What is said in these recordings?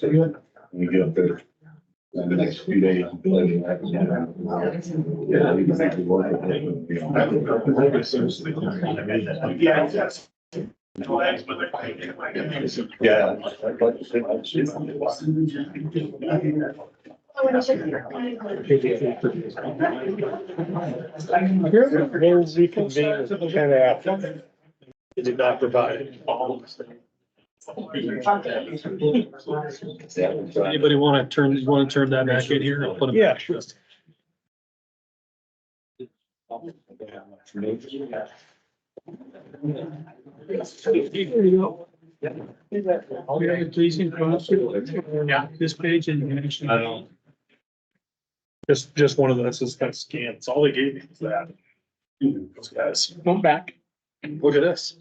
So you. You get up there. In the next few days. I'm planning that. Yeah, you can think of what I think. Yeah, yes. No, that's what they're thinking, like, I mean, it's- Yeah. I'd like to say I'd see them. We'll reconvene at ten after. They Did not provide. it. That was, uh, Anybody want to turn, want to turn that back in here? I'll put it Yeah. back. Sure. Pleasing Yeah, this page and. I don't. Just, just one of those, just kind of scans. All they gave me was that. Those guys. Come back. Look at this.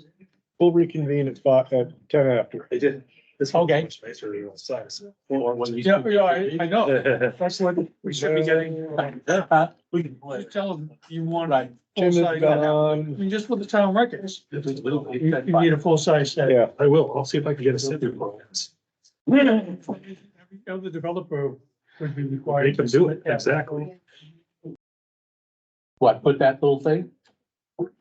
We'll reconvene at five, at ten after. They did. This one's Okay. much nicer than the size. Or when you- Yeah, yeah, I- I know. That's what We should be getting. Huh? We can play. Just tell them you want, I Right. Tim is gone. mean, just with the town records, If we will, we you can you buy- need a full-size set. Yeah, I will. I'll see if I can get a sit through for this. Every other developer would be They required. can to do it. Exactly. What, put that little thing?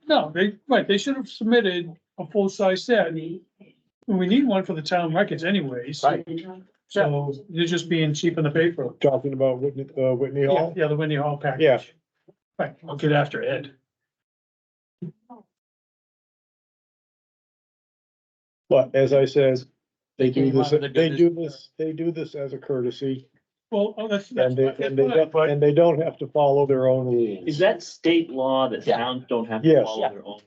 No, they, right, they should have submitted a full-size set. We need one for the town records anyways. Right. So you're just being cheap on the paper. talking about Whitney, uh, Whitney Yeah, Hall. yeah, the Whitney Hall package. Yeah. Right, I'll get after Ed. But as I said, they do They this, wanted to do they this- do this, they do this as a courtesy well, oh, that's, that's. and they, that's and they, fine. don't- and they don't have to follow their own rules. Is that state law that Yeah. towns don't have Yes. to follow their own?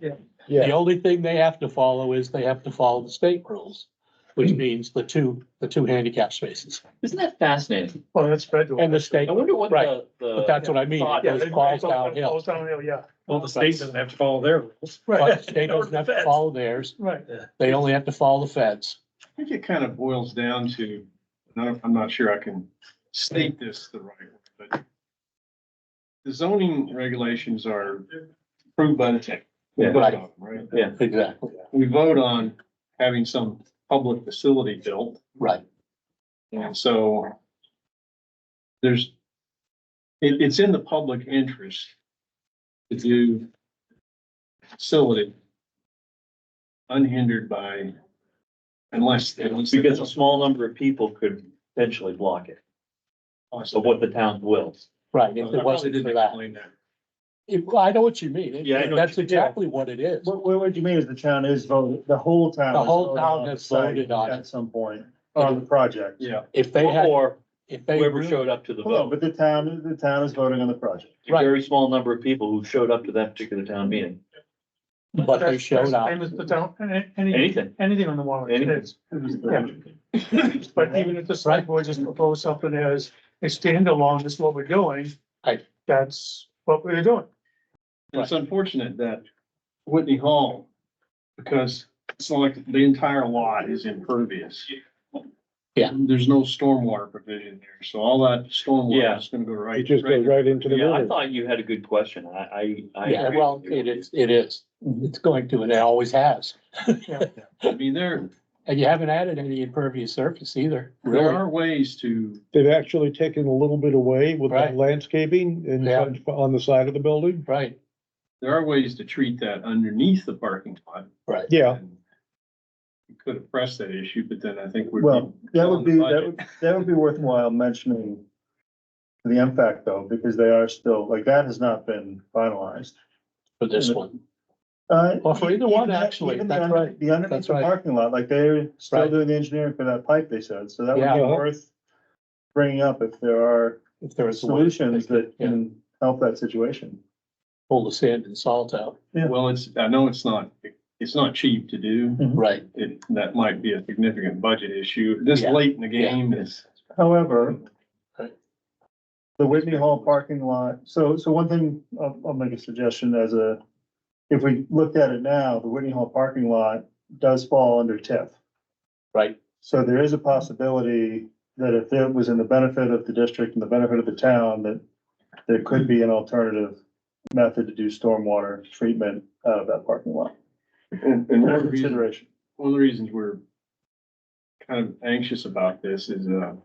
Yeah. The only thing they have to follow is they have to follow the state rules, Hmm. which means the two, the two handicap spaces Isn't that fascinating? Well, Oh, that's federal. and the state, I wonder what Right. the, the. but that's what I mean. Thought It is- goes falls downhill. Falls downhill, yeah. Well, the state doesn't have to follow their rules. But the state doesn't have to follow theirs. Right. They only have to follow the feds. I think it kind of boils down to, and I'm I'm not sure I can state this the right way, but the zoning regulations are approved by the tech. We Yeah. vote on them, Right. Exactly. We vote on having some public facility built, Right. and so there's, it, it's in the public interest to do facility unhindered by, unless. unless- Because a small number of people could potentially block it, of what the town wills. Right. I If it really wasn't didn't for that. explain that. If- I know what you mean. It- Yeah, I know what That's you- exactly what it is. What, what, what you mean is the town is voted, the whole town. The is whole voted town on the has voted site on Oh. it. At some point, on the project. Yeah. If they had, Or if they, whoever really- showed up to the Well, vote, but the town, the town is voting on the project. a right. very small number of people who showed up to that particular town meeting, but they That's- that's showed the up. Same as the town, any- any, anything. anything on the warrant. Anything. it's- But even if the select board just proposed something as a standalone, this is what we're doing. Right. That's what we're doing. And It's unfortunate that Whitney Hall, because it's not like the entire lot is impervious. Yeah. There's no stormwater provision there, so all that Yeah. stormwater is gonna go right. It just goes right into the Yeah, I river. thought you had a good question. I, I. I Yeah, agree well, with you. it is, it is. It's going to, and it always has. I mean, there, And you haven't added any impervious surface either, there really. are ways to, They've actually taken a little bit away with that Right. landscaping and Yeah. on- on the side of the building. Right, there are ways to treat that underneath the parking lot. right. Yeah, We Could have pressed that issue, but then I think we're. Well, that would be, that would, that would be worthwhile mentioning the impact though, because they are still, like, that has not been finalized. For this one. Uh, Well, for either one, even that- actually, even the that's under- right. The underneath That's the right. parking lot, like they're still Right. doing the engineering for that pipe, they said, so that would Yeah. Uh-huh. be worth bringing up if there are If there was a way solutions that yeah. can help that situation. pull the sand and salt out. Well, it's, I know it's not, it's not cheap to do. Right, It, that might be a significant budget issue. This Yeah. late in the game is. However, Right. the Whitney Hall parking lot, so, so one thing, I'll, I'll make a suggestion as a, if we looked at it now, the Whitney Hall parking lot does fall under TIF. right. So there is a possibility that if it was in the benefit of the district and the benefit of the town, that there could be an alternative method to do stormwater treatment out of that parking lot. And, and one For reason- Consideration. one of the reasons we're kind of anxious about this is, uh,